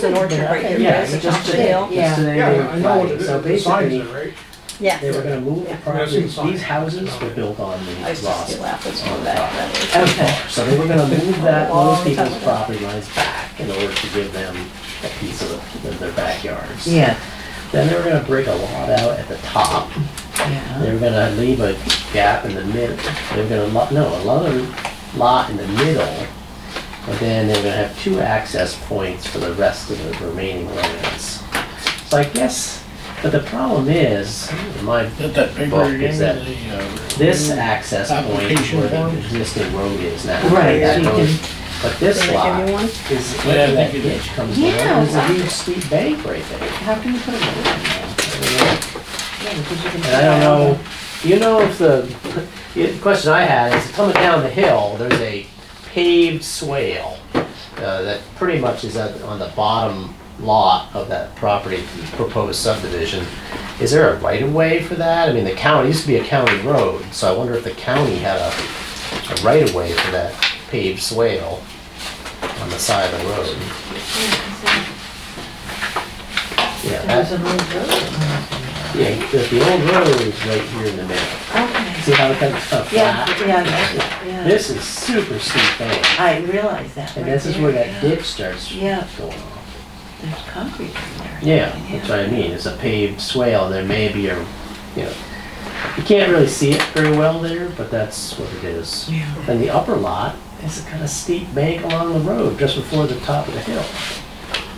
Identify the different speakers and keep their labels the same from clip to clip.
Speaker 1: There's an orchard right here,
Speaker 2: Yeah,
Speaker 1: there's
Speaker 2: he
Speaker 1: a top
Speaker 2: just
Speaker 1: of the
Speaker 2: did,
Speaker 1: hill.
Speaker 2: just did
Speaker 3: Yeah,
Speaker 2: anything
Speaker 3: I know what it
Speaker 2: flagging.
Speaker 3: is,
Speaker 2: So
Speaker 3: the signs
Speaker 2: basically,
Speaker 3: are, right?
Speaker 1: Yeah.
Speaker 2: they were gonna move the property, these houses were built on the
Speaker 1: I used to
Speaker 2: lots.
Speaker 1: see Lapis
Speaker 2: on
Speaker 1: from
Speaker 2: the
Speaker 1: back
Speaker 2: top.
Speaker 1: then.
Speaker 2: Okay, so they were gonna move that,
Speaker 1: Long
Speaker 2: those
Speaker 1: time
Speaker 2: people's
Speaker 1: ago.
Speaker 2: property lines back in order to give them a piece of the- of their backyards. Yeah. Then they were gonna break a lot out at the top. Yeah. They were gonna leave a gap in the mid, they were gonna, lo- no, another lot in the middle. And then they were gonna have two access points for the rest of the remaining lands. So I guess, but the problem is, in my
Speaker 4: That that big
Speaker 2: Well,
Speaker 4: rig in
Speaker 2: is
Speaker 4: the,
Speaker 2: that-
Speaker 4: uh,
Speaker 2: this access point
Speaker 4: Application
Speaker 2: where the
Speaker 4: form?
Speaker 2: existing road is now.
Speaker 3: Right,
Speaker 2: that
Speaker 3: so you
Speaker 2: road.
Speaker 3: can-
Speaker 2: But this
Speaker 1: Did I
Speaker 2: lot
Speaker 1: give you one?
Speaker 2: is,
Speaker 4: Yeah, I
Speaker 2: where that
Speaker 4: think it
Speaker 2: ditch
Speaker 4: is.
Speaker 2: comes
Speaker 3: Yeah,
Speaker 2: down, there's a
Speaker 3: exactly.
Speaker 2: huge steep bank right there.
Speaker 3: How can you put a road on that?
Speaker 2: And I don't know, you know if the, the question I had is coming down the hill, there's a paved swale uh, that pretty much is at, on the bottom lot of that property, proposed subdivision. Is there a right of way for that? I mean, the county, it used to be a county road, so I wonder if the county had a, a right of way for that paved swale on the side of the road. Yeah, that-
Speaker 3: There's a road road.
Speaker 2: yeah, the, the old road is right here in the middle.
Speaker 3: Okay.
Speaker 2: See how it comes up flat?
Speaker 3: Yeah, yeah, yeah.
Speaker 2: This is super steep bank,
Speaker 3: I realize that.
Speaker 2: and
Speaker 3: right
Speaker 2: this is
Speaker 3: there,
Speaker 2: where that
Speaker 3: yeah.
Speaker 2: dip starts
Speaker 3: Yeah.
Speaker 2: going off.
Speaker 3: There's concrete in there.
Speaker 2: Yeah, that's what I mean, it's a paved swale, there may be a, you know, you can't really see it very well there, but that's what it is.
Speaker 3: Yeah.
Speaker 2: And the upper lot is a kind of steep bank along the road, just before the top of the hill.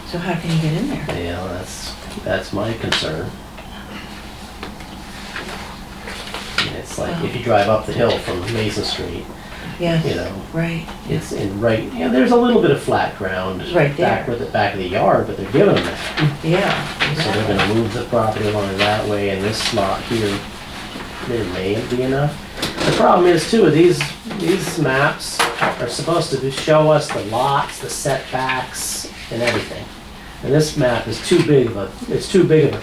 Speaker 3: So how can you get in there?
Speaker 2: Yeah, that's, that's my concern. And It's like, if you drive up the hill from Mason Street, you
Speaker 3: Yeah,
Speaker 2: know,
Speaker 3: right.
Speaker 2: it's in right, you know, there's a little bit of flat ground.
Speaker 3: Right
Speaker 2: Back
Speaker 3: there.
Speaker 2: with the back of the yard, but they're giving them that.
Speaker 3: Yeah.
Speaker 2: So they're gonna move the property along that way and this lot here, there may be enough. The problem is too, these, these maps are supposed to show us the lots, the setbacks and everything. And this map is too big of a, it's too big of a.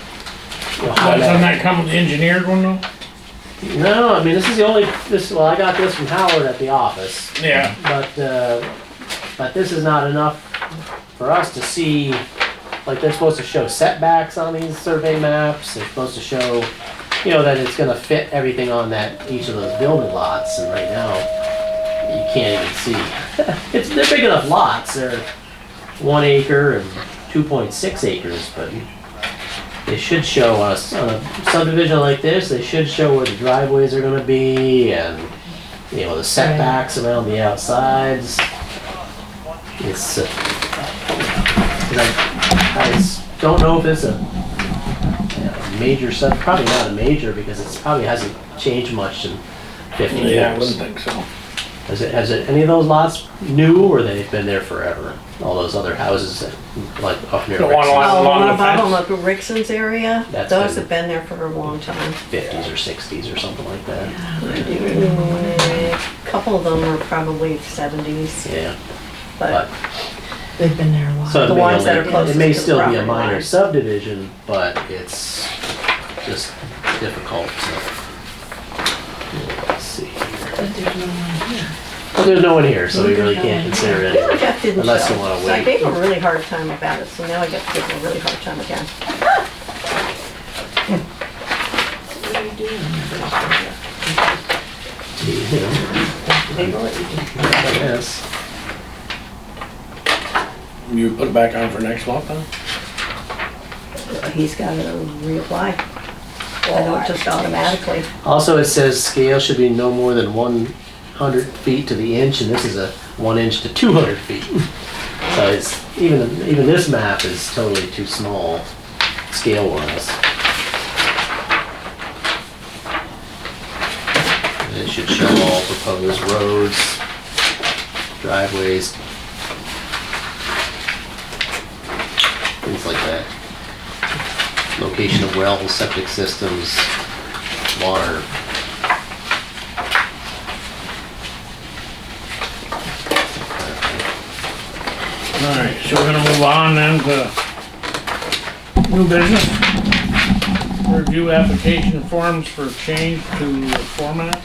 Speaker 2: you know, how
Speaker 4: That's on
Speaker 2: that-
Speaker 4: that come engineered one though?
Speaker 2: No, I mean, this is the only, this, well, I got this from Howard at the office.
Speaker 4: Yeah.
Speaker 2: But, uh, but this is not enough for us to see, like, they're supposed to show setbacks on these survey maps, they're supposed to show, you know, that it's gonna fit everything on that, each of those building lots, and right now, you can't even see. It's, they're big enough lots, they're one acre and two point six acres, but they should show us, on a subdivision like this, they should show where the driveways are gonna be, and, you know, the setbacks around the outsides. It's, uh, 'cause I, I s- don't know if it's a you know, major sub, probably not a major because it's probably hasn't changed much in fifty
Speaker 4: Yeah, I wouldn't
Speaker 2: years.
Speaker 4: think so.
Speaker 2: Has it, has it, any of those lots new or they've been there forever? All those other houses that, like up near
Speaker 4: The one
Speaker 2: Rex's,
Speaker 4: lot-
Speaker 1: Oh,
Speaker 4: along
Speaker 1: one
Speaker 4: the
Speaker 1: above on like
Speaker 4: fence.
Speaker 1: Rixon's area,
Speaker 2: That's
Speaker 1: those
Speaker 2: been-
Speaker 1: have been there for a long time.
Speaker 2: fifties or sixties or something like that.
Speaker 1: A Couple of them were probably seventies,
Speaker 2: Yeah, but,
Speaker 1: but
Speaker 3: They've been there a while.
Speaker 2: so it
Speaker 1: The
Speaker 2: may
Speaker 1: ones that
Speaker 2: only-
Speaker 1: are closest
Speaker 2: It may
Speaker 1: to the
Speaker 2: still be a
Speaker 1: property
Speaker 2: minor
Speaker 1: line.
Speaker 2: subdivision, but it's just difficult to. Let's see here.
Speaker 3: But there's no one here.
Speaker 2: But there's no one here, so we
Speaker 3: There's
Speaker 2: really
Speaker 3: no
Speaker 2: can't
Speaker 3: one
Speaker 2: consider
Speaker 1: the other
Speaker 2: it.
Speaker 1: Jeff didn't show.
Speaker 2: Unless you wanna
Speaker 1: So I
Speaker 2: wait.
Speaker 1: gave him a really hard time about it, so now I get to give him a really hard time again.
Speaker 2: you know, I guess.
Speaker 4: You put it back on for next month then?
Speaker 1: He's gotta reapply. I don't just automatically.
Speaker 2: Also, it says scale should be no more than one hundred feet to the inch, and this is a one inch to two hundred feet. So it's, even, even this map is totally too small, scale wise. It should show all proposed roads, driveways, things like that. Location of wells, septic systems, water.
Speaker 4: Alright, so we're gonna move on then to new business. Review application forms for change to format.